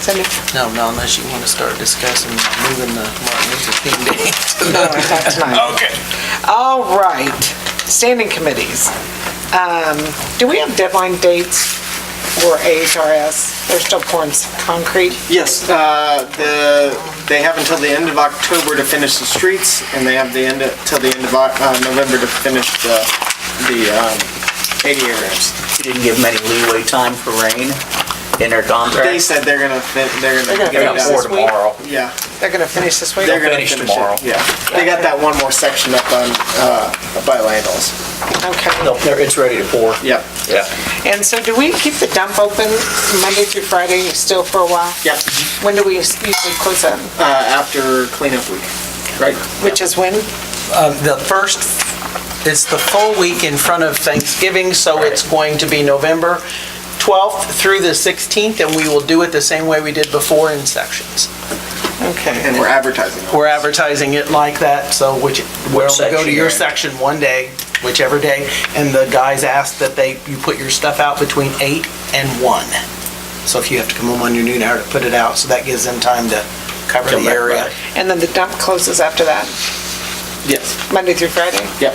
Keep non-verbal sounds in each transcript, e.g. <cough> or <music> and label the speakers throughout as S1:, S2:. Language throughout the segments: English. S1: Cindy?
S2: No, no, unless you want to start discussing moving the Martin Luther King Day. <laughs> to
S1: No, I
S2: the-
S1: thought tonight.
S2: Okay.
S1: All right, standing committees. Um, Do we have deadline dates for AHRS? They're still pouring s- concrete.
S3: Yes, uh, the, they have until the end of October to finish the streets, and they have the end, of- till the end of Oc- uh, November to finish the, the um, ADA ramps.
S4: You didn't give them any leeway time for rain in their contract?
S3: They said they're gonna, fin- they're
S1: They're gonna
S3: gonna get it
S1: finish
S4: Got four
S1: this
S3: done.
S1: week.
S4: tomorrow.
S3: Yeah,
S1: They're going to finish this week?
S3: they're gonna
S4: finish
S3: finish it.
S4: tomorrow.
S3: Yeah, they got that one more section up on, uh, by Landals.
S1: Okay.
S4: No, they're- it's ready to pour.
S3: Yep,
S4: Yeah.
S1: And so do we keep the dump open Monday through Friday still for a while?
S3: yep,
S1: When do we usually close that?
S3: uh, after cleanup week, right?
S1: Which is when?
S2: Uh, The first, it's the full week in front of Thanksgiving, so it's going to be November 12th through the 16th, and we will do it the same way we did before in sections.
S1: Okay.
S3: And we're advertising.
S2: We're advertising it like that, so which, we'll go to
S4: section
S2: your
S4: you're in?
S2: section one day, whichever day, and the guys ask that they, you put your stuff out between 8 and 1. So if you have to come home on your noon hour to put it out, so that gives them time to cover
S4: Come
S2: the
S4: back
S2: area.
S4: Friday.
S1: And then the dump closes after that,
S3: Yes,
S1: Monday through Friday?
S3: yep.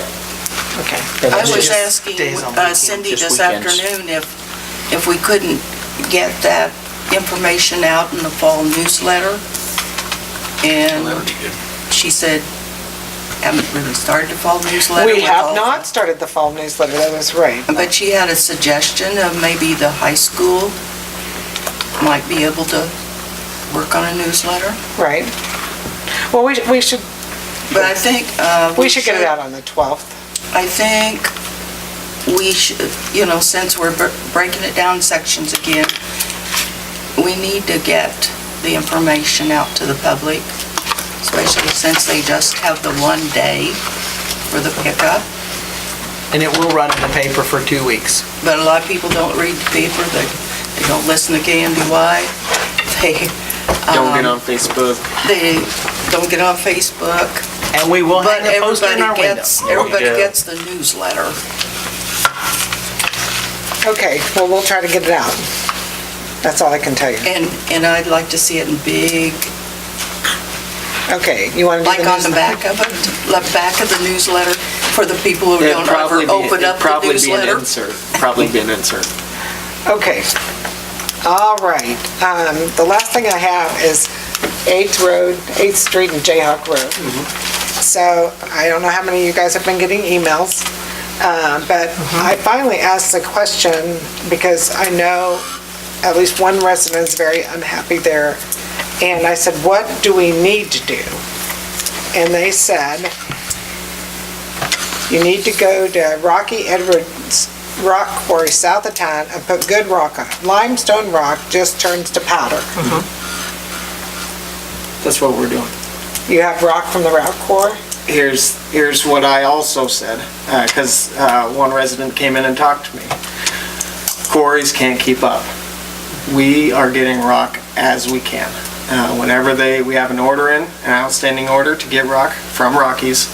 S1: Okay.
S5: I
S2: It's
S5: was
S2: just
S5: asking
S2: days on
S5: uh,
S2: weekends,
S5: Cindy
S4: just
S5: this
S4: weekends.
S5: afternoon if, if we couldn't get that information out in the fall newsletter. And she said, haven't really started the fall newsletter.
S1: We
S5: with all-
S1: have not started the fall newsletter, that was right.
S5: But she had a suggestion of maybe the high school might be able to work on a newsletter.
S1: Right. Well, we, we should,
S5: But I think, uh.
S1: we should get it out on the 12th.
S5: I think we should, you know, since we're br- breaking it down sections again, we need to get the information out to the public, especially since they just have the one day for the pickup.
S2: And it will run in the paper for two weeks.
S5: But a lot of people don't read the paper, they, they don't listen to KNDY, <laughs> they, um,
S3: Don't get on Facebook.
S5: they don't get on Facebook.
S2: And we will
S5: But
S2: hang a post in
S5: everybody
S2: our window.
S5: gets, everybody
S4: do.
S5: gets the newsletter.
S1: Okay, well, we'll try to get it out. That's all I can tell you.
S5: And, and I'd like to see it in big
S1: Okay, you want to do the
S5: Like on the
S1: newsletter?
S5: back of it, the back of the newsletter for the people who
S3: It'd
S5: don't
S3: probably
S5: ever
S3: be-
S5: open
S3: it'd
S5: up the
S3: probably be an
S5: newsletter.
S3: insert. Probably be an insert.
S1: Okay. All right. Um, The last thing I have is 8th Road, 8th Street and Jayhawk Road. So I don't know how many of you guys have been getting emails, uh, but I finally asked the question because I know at least one resident is very unhappy there. And I said, what do we need to do? And they said, you need to go to Rocky Edwards rock quarry south of town and put good rock on it. Limestone rock just turns to powder.
S3: That's what we're doing.
S1: You have rock from the rock quarry?
S3: here's, here's what I also said, because one resident came in and talked to me. Quarries can't keep up. We are getting rock as we can. Uh, Whenever they, we have an order in, an outstanding order to get rock from Rockies,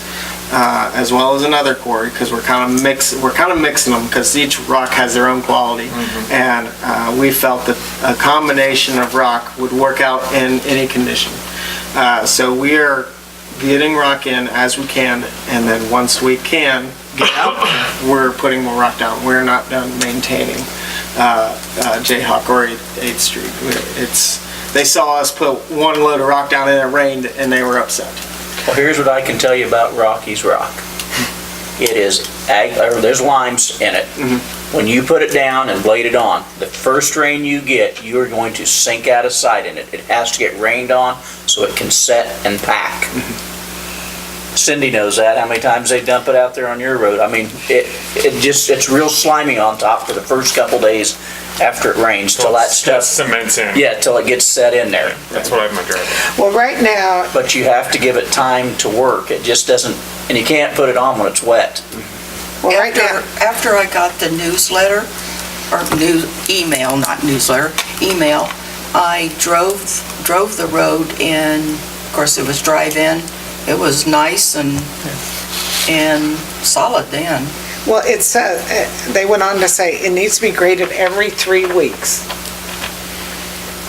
S3: uh, as well as another quarry, because we're kind of mix, we're kind of mixing them, because each rock has their own quality. And uh, we felt that a combination of rock would work out in any condition. Uh, So we are getting rock in as we can, and then once we can get out, we're putting more rock down. We're not done maintaining uh, uh, Jayhawk or 8th Street. We're- It's, they saw us put one load of rock down and it rained, and they were upset.
S4: Well, here's what I can tell you about Rocky's Rock. It is, ag- or there's limes in it. When you put it down and blade it on, the first rain you get, you are going to sink out of sight in it. It has to get rained on so it can set and pack. Cindy knows that, how many times they dump it out there on your road. I mean, it, it just, it's real slimy on top for the first couple days after it rains, till that stuff,
S6: Cements in.
S4: yeah, till it gets set in there.
S6: That's what I have in my driveway.
S1: Well, right now,
S4: But you have to give it time to work. It just doesn't, and you can't put it on when it's wet.
S1: well, right now,
S5: After, after I got the newsletter, or new, email, not newsletter, email, I drove, drove the road and, of course, it was drive-in. It was nice and, and solid then.
S1: well, it says, eh, they went on to say it needs to be graded every three weeks.